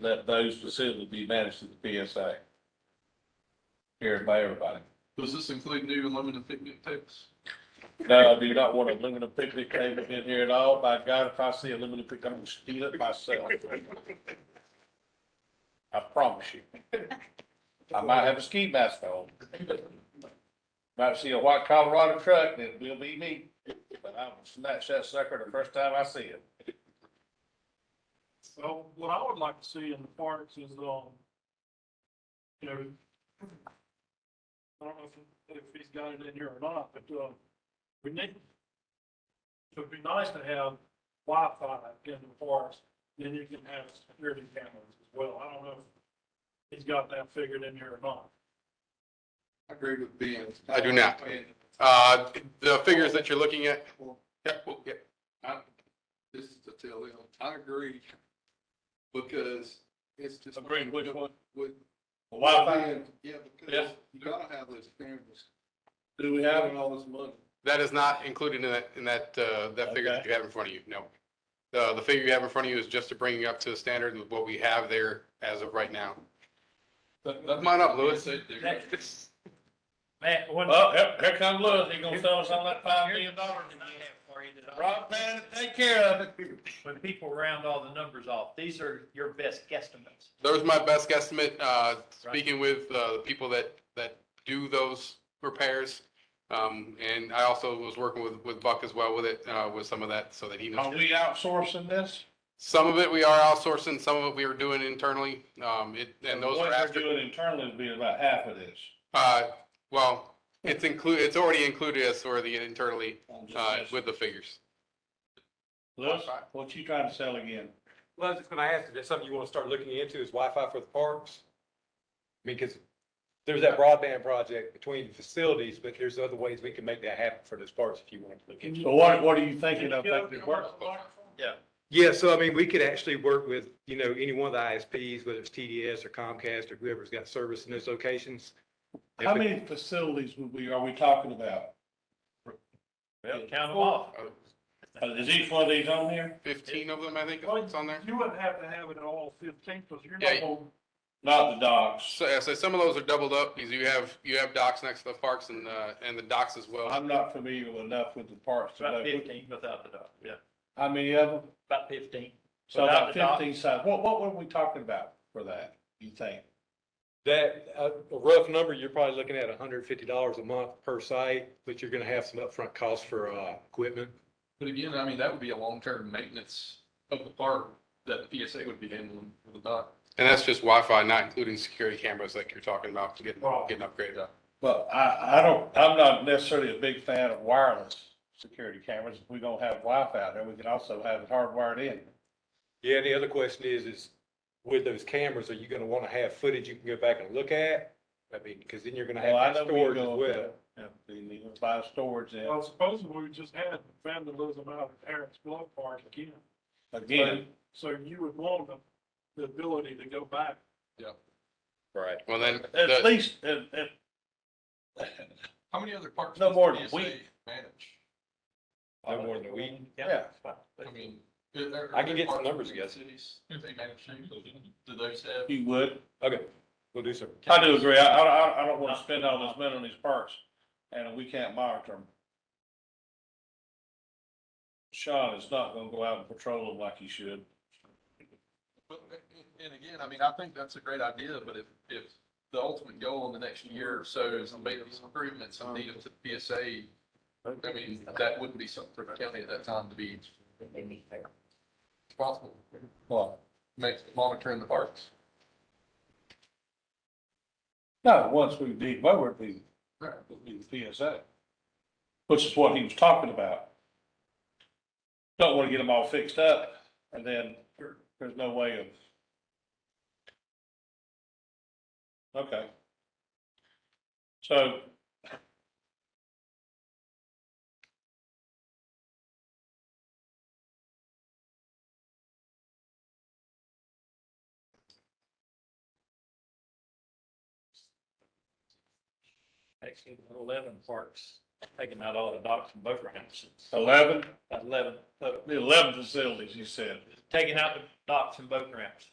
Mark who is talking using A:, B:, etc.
A: let those facilities be managed to the PSA. Here by everybody.
B: Does this include new aluminum picnic tables?
A: No, I do not want a aluminum picnic table in here at all. By God, if I see a aluminum picnic, I'm gonna steal it myself. I promise you. I might have a ski mask on. Might see a white Colorado truck, and it will be me, but I'll snatch that sucker the first time I see it.
C: Well, what I would like to see in the parks is, um, you know, I don't know if, if he's got it in here or not, but, uh, we need, it would be nice to have Wi-Fi in the parks, then you can have security cameras as well. I don't know if he's got that figured in here or not.
B: I agree with Ben.
D: I do not. Uh, the figures that you're looking at, yeah, well, yeah,
B: I- This is to tell them, I agree, because it's just.
A: Agree, which one?
B: With.
A: Wi-Fi,
B: Yeah, because
A: Yeah.
B: you gotta have those cameras,
A: do we have
B: having
A: it?
B: all this money.
D: that is not included in that, in that, uh, that figure that you have in front of you, no. The, the figure you have in front of you is just to bring you up to the standard of what we have there as of right now. Come on up, Louis.
E: Matt, one,
A: Well, here, here comes Louis, he gonna sell us on that five million dollars.
E: question I have for you that I-
A: Rock man, take care of it.
E: when people round all the numbers off, these are your best guesstimates.
D: There's my best guesstimate, uh, speaking with, uh, the people that, that do those repairs. Um, and I also was working with, with Buck as well with it, uh, with some of that, so that he knows.
A: Are we outsourcing this?
D: Some of it we are outsourcing, some of it we are doing internally, um, it, and those
A: What
D: are
A: we're
D: after.
A: Doing internally would be about half of this.
D: Uh, well, it's included, it's already included as sort of the internally, uh, with the figures.
A: Louis, what you trying to sell again?
F: Well, I was just gonna ask, if there's something you wanna start looking into, is Wi-Fi for the parks? I mean, cause there's that broadband project between facilities, but there's other ways we can make that happen for those parks if you want to look into. it.
A: So what, what are you thinking of that could work?
F: Yeah, so I mean, we could actually work with, you know, any one of the ISPs, whether it's TDS or Comcast or whoever's got service in those locations. If
A: How
F: it-
A: many facilities would we, are we talking about?
E: Well, count them off.
A: Uh, Is each one of these on here?
D: Fifteen of them, I think, it's on there.
C: You wouldn't have to have it at all fifteen, because you're
D: Yeah.
C: not gonna
A: Not the docks.
D: So, yeah, so some of those are doubled up, because you have, you have docks next to the parks and, uh, and the docks as well.
A: I'm not familiar enough with the parks to
E: About
A: know.
E: fifteen without the dog, yeah,
A: How many of them?
E: about fifteen.
A: So
E: Without
A: about
E: the dock.
A: fifteen sites. What, what were we talking about for that, you think?
F: That, uh, a rough number, you're probably looking at hundred fifty dollars a month per site, but you're gonna have some upfront costs for, uh, equipment.
B: But again, I mean, that would be a long-term maintenance of the park that the PSA would be handling for the dock.
D: And that's just Wi-Fi, not including security cameras like you're talking about, getting,
C: Right.
D: getting upgraded.
A: But I, I don't, I'm not necessarily a big fan of wireless security cameras. If we're gonna have Wi-Fi out there, we can also have it hardwired in.
F: Yeah, and the other question is, is with those cameras, are you gonna wanna have footage you can go back and look at? I mean, cause then you're gonna
A: Well, I
F: have
A: know
F: that
A: we
F: storage as
A: go,
F: well.
A: yeah, we need to buy storage in.
C: Well, supposedly we just had vandalism out at Eric's Blood Park again.
A: Again,
C: So you would want the, the ability to go back.
D: Right. Well, then,
A: at
D: the-
A: least, at, at,
B: How many other parks?
A: No
B: does
A: more than a
B: PSA
A: week.
B: Manage.
F: No more than a week.
A: yeah,
B: I mean. are there-
F: I can
B: are there
F: get some
B: parks
F: numbers
B: in
F: together.
B: Cities, if they manage to, do those have?
A: you would.
F: Okay, we'll do some.
A: I do agree. I, I, I- I don't want to spend all this money on these parks and we can't monitor them. Sean is not gonna go out and patrol them like he should.
B: Well, a- And again, I mean, I think that's a great idea, but if, if the ultimate goal in the next year or so is to make these improvements and need them to the PSA, I mean, that wouldn't be something for the county at that time to be responsible. Well, make, monitoring the parks.
A: No, once we did, well, we'd be, would be the PSA. Which is what he was talking about. Don't want to get them all fixed up and then there's no way of. Okay. So.
E: Actually, eleven parks, taking out all the docks and boat ramps, It's
A: Eleven,
E: about eleven, uh,
A: the eleven facilities, you said.
E: taking out the docks and boat ramps.